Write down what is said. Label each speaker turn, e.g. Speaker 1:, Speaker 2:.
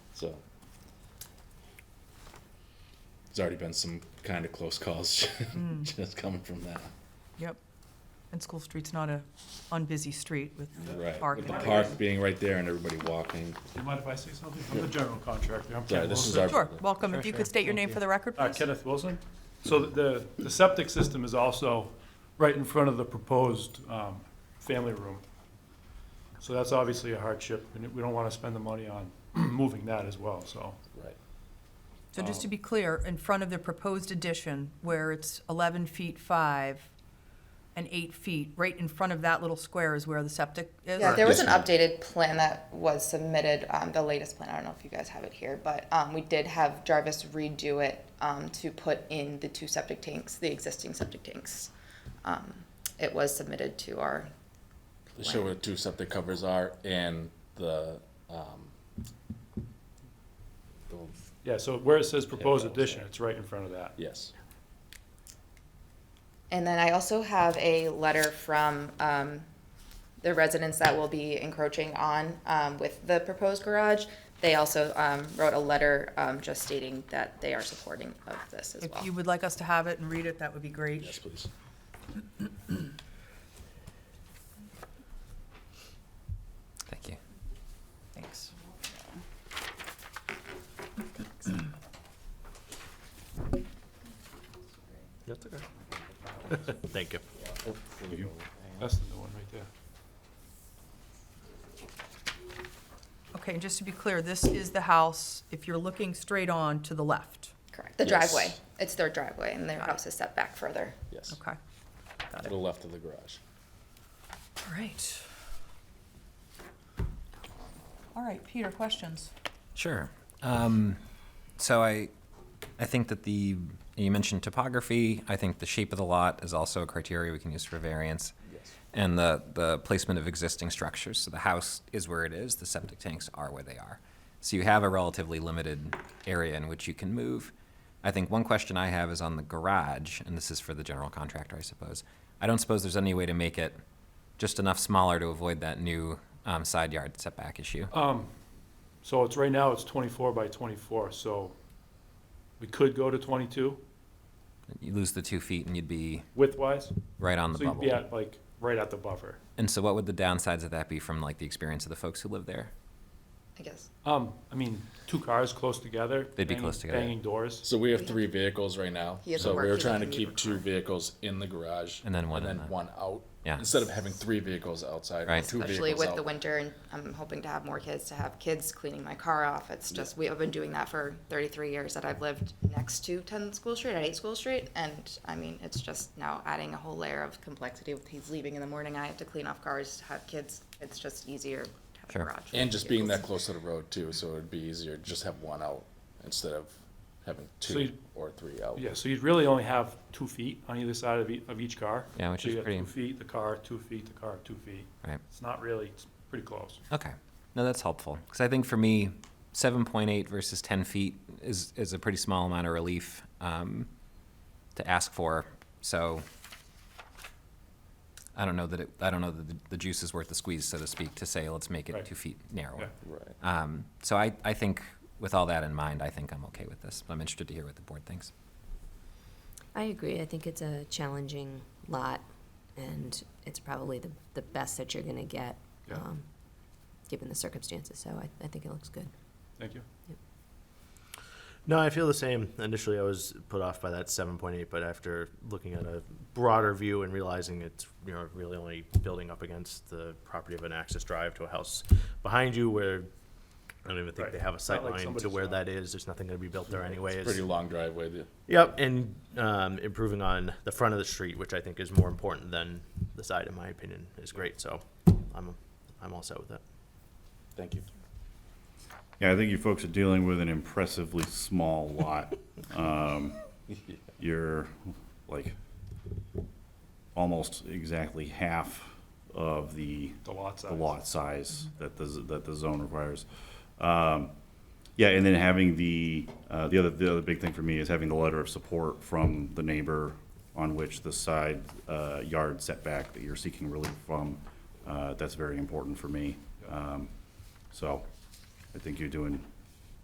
Speaker 1: So there's already been some kind of close calls just coming from that.
Speaker 2: Yep. And School Street's not a unbusy street with
Speaker 1: Right.
Speaker 2: park
Speaker 1: With
Speaker 2: and
Speaker 1: the
Speaker 2: everything.
Speaker 1: park being right there and everybody walking.
Speaker 3: Do you mind if I say something? I'm the general contractor. I'm
Speaker 1: Sorry,
Speaker 3: Ken
Speaker 1: this is
Speaker 3: Wilson.
Speaker 1: our-
Speaker 2: Sure, welcome.
Speaker 3: Sure,
Speaker 2: If you
Speaker 3: sure.
Speaker 2: could state your name
Speaker 3: Thank
Speaker 2: for the record,
Speaker 3: Uh,
Speaker 2: please.
Speaker 3: Kenneth Wilson. So the, the septic system is also right in front of the proposed um, family room. So that's obviously a hardship, and we don't want to spend the money on moving that as well, so.
Speaker 1: Right.
Speaker 2: So just to be clear, in front of the proposed addition, where it's 11 feet 5 and 8 feet, right in front of that little square is where the septic is?
Speaker 4: Yeah, there was an
Speaker 1: Yes, ma'am.
Speaker 4: updated plan that was submitted, um, the latest plan, I don't know if you guys have it here, but, um, we did have Jarvis redo it, um, to put in the two septic tanks, the existing septic tanks. Um, it was submitted to our,
Speaker 1: Show where the two septic covers are and the, um, the,
Speaker 3: Yeah, so where it says proposed
Speaker 1: Yeah,
Speaker 3: addition, it's right in front of that.
Speaker 1: yes.
Speaker 4: and then I also have a letter from, um, the residents that will be encroaching on, um, with the proposed garage. They also, um, wrote a letter, um, just stating that they are supporting of this as
Speaker 2: If
Speaker 4: well.
Speaker 2: you would like us to have it and read it, that would be great.
Speaker 1: Yes, please.
Speaker 5: Thank you.
Speaker 2: Thanks.
Speaker 3: That's okay.
Speaker 6: Thank you.
Speaker 3: That's the new one right there.
Speaker 2: Okay, and just to be clear, this is the house, if you're looking straight on to the left.
Speaker 4: Correct, the
Speaker 1: Yes.
Speaker 4: driveway, it's their driveway, and their house is set back further.
Speaker 1: Yes.
Speaker 2: Okay,
Speaker 1: To the left of the garage.
Speaker 2: all right. All right, Peter, questions?
Speaker 5: Sure. Um, so I, I think that the you mentioned topography. I think the shape of the lot is also a criteria we can use for variance,
Speaker 1: Yes.
Speaker 5: and the the placement of existing structures. So the house is where it is. The septic tanks are where they are. So you have a relatively limited area in which you can move. I think one question I have is on the garage, and this is for the general contractor, I suppose. I don't suppose there's any way to make it just enough smaller to avoid that new um, side yard setback issue.
Speaker 3: So it's, right now, it's 24 by 24, so we could go to 22
Speaker 5: You lose the two feet, and you'd be
Speaker 3: width-wise.
Speaker 5: right on the
Speaker 3: So you'd
Speaker 5: bubble.
Speaker 3: be at, like, right at the buffer.
Speaker 5: And so, what would the downsides of that be from like the experience of the folks who live there?
Speaker 4: I guess.
Speaker 3: Um, I mean, two cars close together.
Speaker 5: They'd be
Speaker 3: banging-
Speaker 5: close together.
Speaker 3: Banging doors.
Speaker 1: So we have three vehicles right now.
Speaker 4: He has
Speaker 1: So
Speaker 4: a
Speaker 1: we were
Speaker 4: working
Speaker 1: trying to
Speaker 4: commute
Speaker 1: keep two vehicles in the garage.
Speaker 5: And then one in
Speaker 1: And then
Speaker 5: the-
Speaker 1: one out.
Speaker 5: Yeah.
Speaker 1: Instead of having three vehicles outside.
Speaker 5: Right.
Speaker 1: two
Speaker 4: especially
Speaker 1: vehicles
Speaker 4: with
Speaker 1: out.
Speaker 4: the winter and I'm hoping to have more kids to have kids cleaning my car off. It's just we have been doing that for 33 years that I've lived next to 10 School Street at 8 School Street and I mean it's just now adding a whole layer of complexity with he's leaving in the morning I have to clean off cars to have kids. It's just easier to have
Speaker 5: Sure.
Speaker 4: a garage.
Speaker 1: And just being that close to the road too, so it'd be easier to just have one out instead of having
Speaker 3: So
Speaker 1: two
Speaker 3: you-
Speaker 1: or three out.
Speaker 3: Yeah, so you'd really only have two feet on either side of each, of each car.
Speaker 5: Yeah, which
Speaker 3: So
Speaker 5: is
Speaker 3: you got
Speaker 5: pretty-
Speaker 3: Two feet, the car, two feet, the car, two feet.
Speaker 5: Right.
Speaker 3: It's not really, it's pretty close.
Speaker 5: Okay. No, that's helpful because I think for me, 7.8 versus 10 feet is is a pretty small amount of relief um, to ask for. So. I don't know that it, I don't know that the, the juice is worth the squeeze, so to speak, to say let's make it
Speaker 3: Right.
Speaker 5: two feet narrower.
Speaker 1: Right.
Speaker 5: Um, so I, I think with all that in mind, I think I'm okay with this. But I'm interested to hear what the board thinks.
Speaker 7: I agree. I think it's a challenging lot, and it's probably the, the best that you're gonna get,
Speaker 3: Yeah.
Speaker 7: um, given the circumstances, so I, I think it looks good.
Speaker 3: Thank you.
Speaker 6: No, I feel the same. Initially, I was put off by that 7.8, but after looking at a broader view and realizing it's you know really only building up against the property of an access drive to a house behind you, where I don't even think
Speaker 3: Right.
Speaker 6: they have a
Speaker 3: Not
Speaker 6: sight
Speaker 3: like
Speaker 6: line to
Speaker 3: somebody's
Speaker 6: where
Speaker 3: house.
Speaker 6: that is. There's nothing going to be built there anyways.
Speaker 1: Pretty long driveway. the-
Speaker 6: Yep, and um, improving on the front of the street, which I think is more important than the side, in my opinion, is great. So I'm I'm all set with it.
Speaker 1: Thank you.
Speaker 8: Yeah, I think you folks are dealing with an impressively small lot. Um, You're like almost exactly half of the
Speaker 3: The lot size. Mm-hmm.
Speaker 8: the lot size that the, z- that the zone requires. Um, Yeah, and then having the, uh, the other, the other big thing for me is having the letter of support from the neighbor on which the side uh, yard setback that you're seeking relief from, uh, that's very important for me. Um, So I think you're doing